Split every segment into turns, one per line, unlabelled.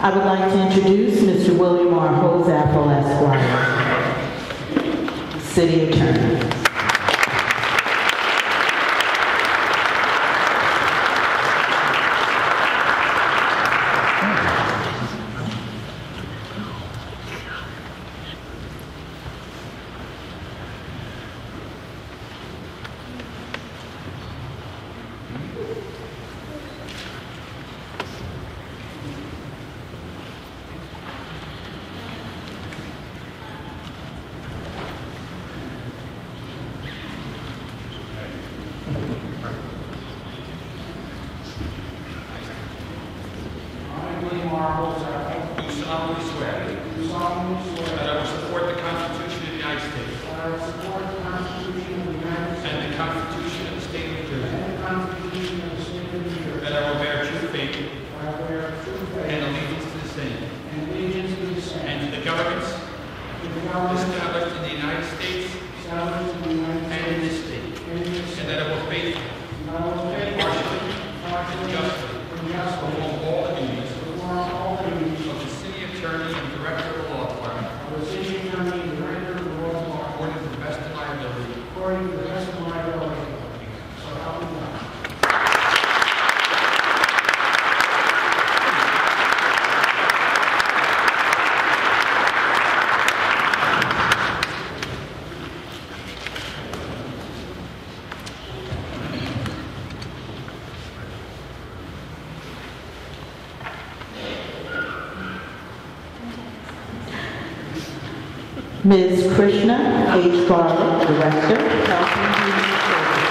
I would like to introduce Mr. William R. Hozapple Esquire, City Attorney.
I, William R. Holzapfel.
Do solemnly swear
Do solemnly
that
swear
I will support the Constitution of the United States
that I will support the Constitution of the United States
and the Constitution of the State of New Jersey,
and the Constitution of the State of New Jersey.
that I will bear true faith
that I bear true
and
faith
allegiance to the same,
and allegiance to the same.
and to the governments
To the government
established in the United States
established in the United
and in
States.
this state,
And in this
and that I will faithfully,
And I will
impartially, and
faithfully.
justly
And justly.
perform all the duties
Perform all the duties
of the city attorney and director of the law department
of the city attorney and director of the law department
according to the best of my ability.
according to the best of my ability. So help me God.
Ms. Krishna H. Garland, Director, Health and Human Services.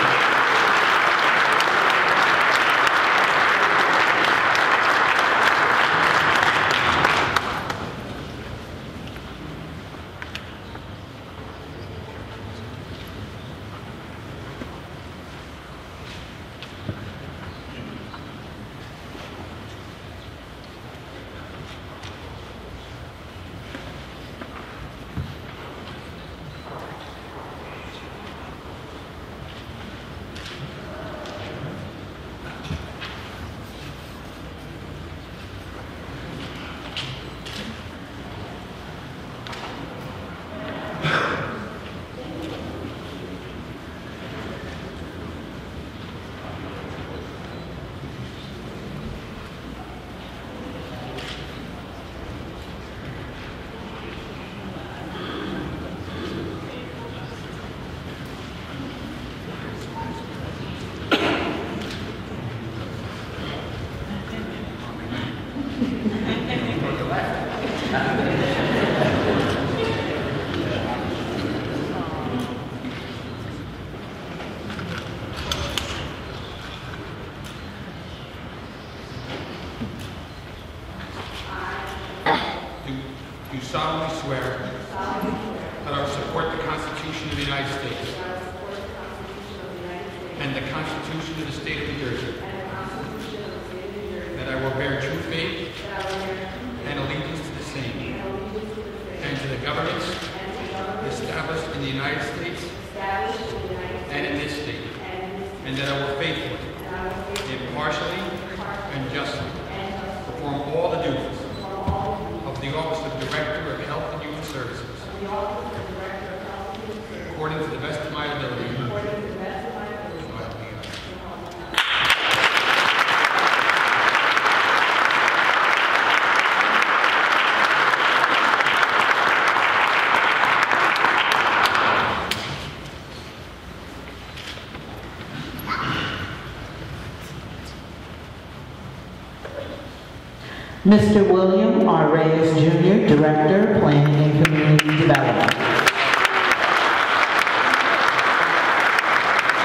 Do do solemnly swear that I will support the Constitution of the United States and the Constitution of the State of New Jersey, that I will bear true faith and allegiance to the same and to the governments established in the United States and in this state, and that I will faithfully, impartially, and justly perform all the duties of the Office of Director of Health and Human Services. According to the best of my ability. According to the best of my ability.
Mr. William R. Reyes Jr., Director, Planning and Community Development.